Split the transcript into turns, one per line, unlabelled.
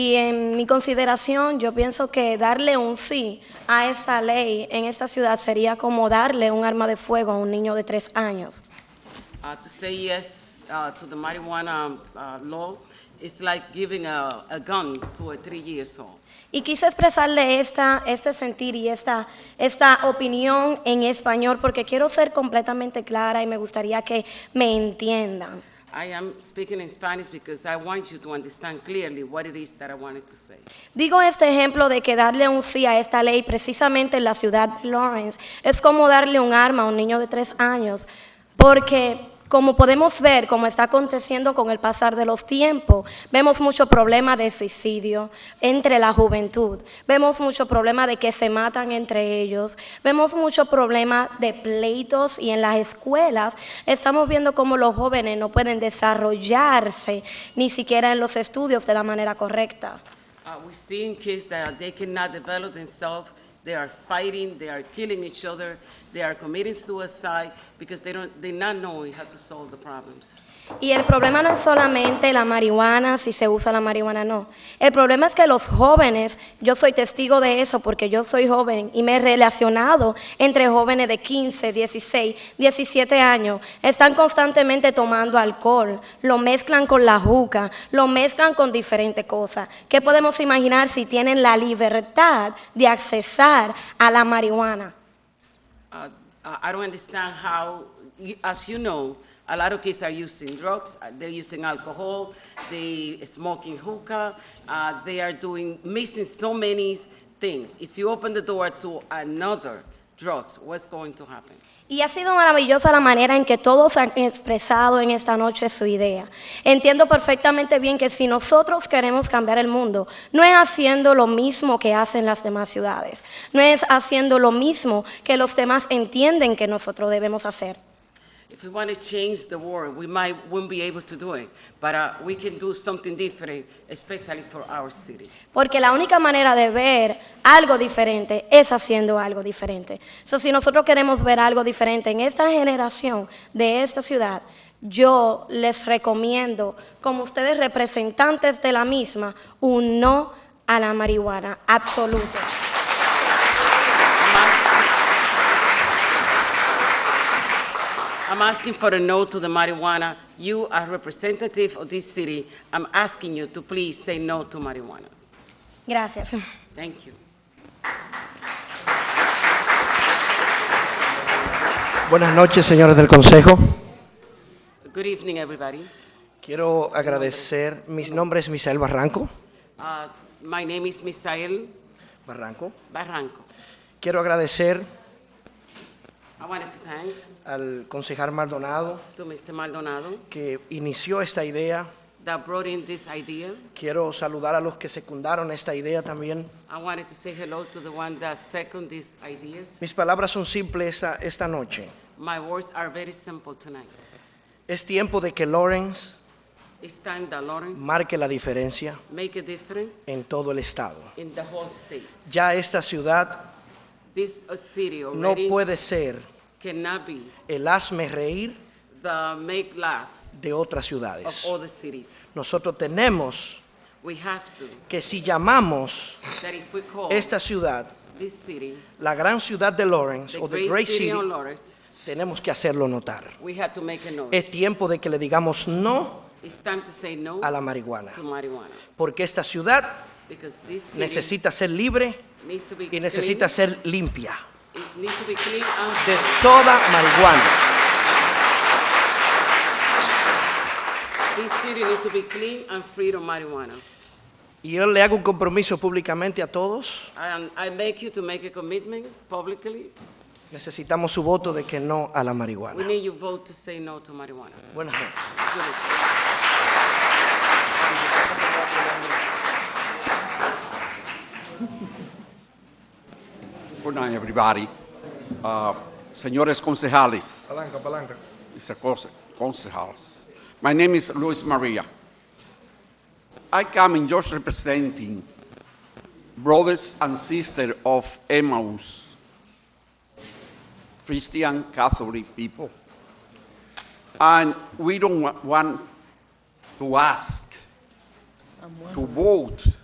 Y en mi consideración, yo pienso que darle un sí a esta ley en esta ciudad sería como darle un arma de fuego a un niño de tres años.
Uh, to say yes uh, to the marijuana uh, law is like giving a, a gun to a three years old.
Y quise expresarle esta, este sentir y esta, esta opinión en español porque quiero ser completamente clara y me gustaría que me entiendan.
I am speaking in Spanish because I want you to understand clearly what it is that I wanted to say.
Digo este ejemplo de que darle un sí a esta ley precisamente en la ciudad de Lawrence es como darle un arma a un niño de tres años, porque como podemos ver, como está aconteciendo con el pasar de los tiempos, vemos mucho problema de suicidio entre la juventud, vemos mucho problema de que se matan entre ellos, vemos mucho problema de pleitos y en las escuelas estamos viendo cómo los jóvenes no pueden desarrollarse ni siquiera en los estudios de la manera correcta.
Uh, we're seeing kids that they cannot develop themselves. They are fighting. They are killing each other. They are committing suicide because they don't. They're not knowing how to solve the problems.
Y el problema no es solamente la marihuana, si se usa la marihuana no. El problema es que los jóvenes, yo soy testigo de eso porque yo soy joven y me he relacionado entre jóvenes de 15, 16, 17 años, están constantemente tomando alcohol, lo mezclan con la juca, lo mezclan con diferentes cosas. ¿Qué podemos imaginar si tienen la libertad de accesar a la marihuana?
Uh, I I don't understand how, y- as you know, a lot of kids are using drugs, uh, they're using alcohol, they smoking hookah, uh, they are doing, mixing so many things. If you open the door to another drugs, what's going to happen?
Y ha sido maravillosa la manera en que todos han expresado en esta noche su idea. Entiendo perfectamente bien que si nosotros queremos cambiar el mundo, no es haciendo lo mismo que hacen las demás ciudades, no es haciendo lo mismo que los demás entienden que nosotros debemos hacer.
If we want to change the world, we might, won't be able to do it, but uh, we can do something different, especially for our city.
Porque la única manera de ver algo diferente es haciendo algo diferente. So, si nosotros queremos ver algo diferente en esta generación de esta ciudad, yo les recomiendo, como ustedes representantes de la misma, un no a la marihuana absoluto.
I'm ask- I'm asking for a no to the marijuana. You are representative of this city. I'm asking you to please say no to marijuana.
Gracias.
Thank you.
Buenas noches, señores del Consejo.
Good evening, everybody.
Quiero agradecer, mi nombre es Misael Barranco.
Uh, My name is Misael
Barranco.
Barranco.
Quiero agradecer
I wanted to thank
al concejal Maldonado
to Mr. Maldonado
que inició esta idea.
that brought in this idea.
Quiero saludar a los que secundaron esta idea también.
I wanted to say hello to the one that second these ideas.
Mis palabras son simples esta, esta noche.
My words are very simple tonight.
Es tiempo de que Lawrence
It's time that Lawrence
marque la diferencia
make a difference
en todo el estado.
in the whole state.
Ya esta ciudad
This uh, city
no
already
puede ser
cannot be
el hazme reír
the make laugh
de otras
of
ciudades.
all the cities.
Nosotros tenemos
We have to,
que si llamamos
that if we call
esta ciudad,
this city
la gran ciudad de Lawrence
the
o the
great
Great
city
City,
on Lawrence,
tenemos que hacerlo notar.
we have to make a
Es
noise.
tiempo de que le digamos no
It's time to say no
a
to
la marihuana,
marijuana
porque esta ciudad
because this city
necesita ser libre
needs to be
y
clean.
necesita ser limpia
It needs to be clean and
de
safe.
toda marihuana.
This city needs to be clean and free from marijuana.
Y yo le hago un compromiso públicamente a todos.
And I make you to make a commitment publicly.
Necesitamos su voto de que no a la
We
marihuana.
need your vote to say no to marijuana.
Buenas noches.
Good luck.
Good night, everybody. Uh, Señores concejales,
Palanca, palanca.
it's a conce- concejals. My name is Luis Maria. I come in just representing brothers and sisters of Emmaus, Christian Catholic people. And we don't wa- want to ask to vote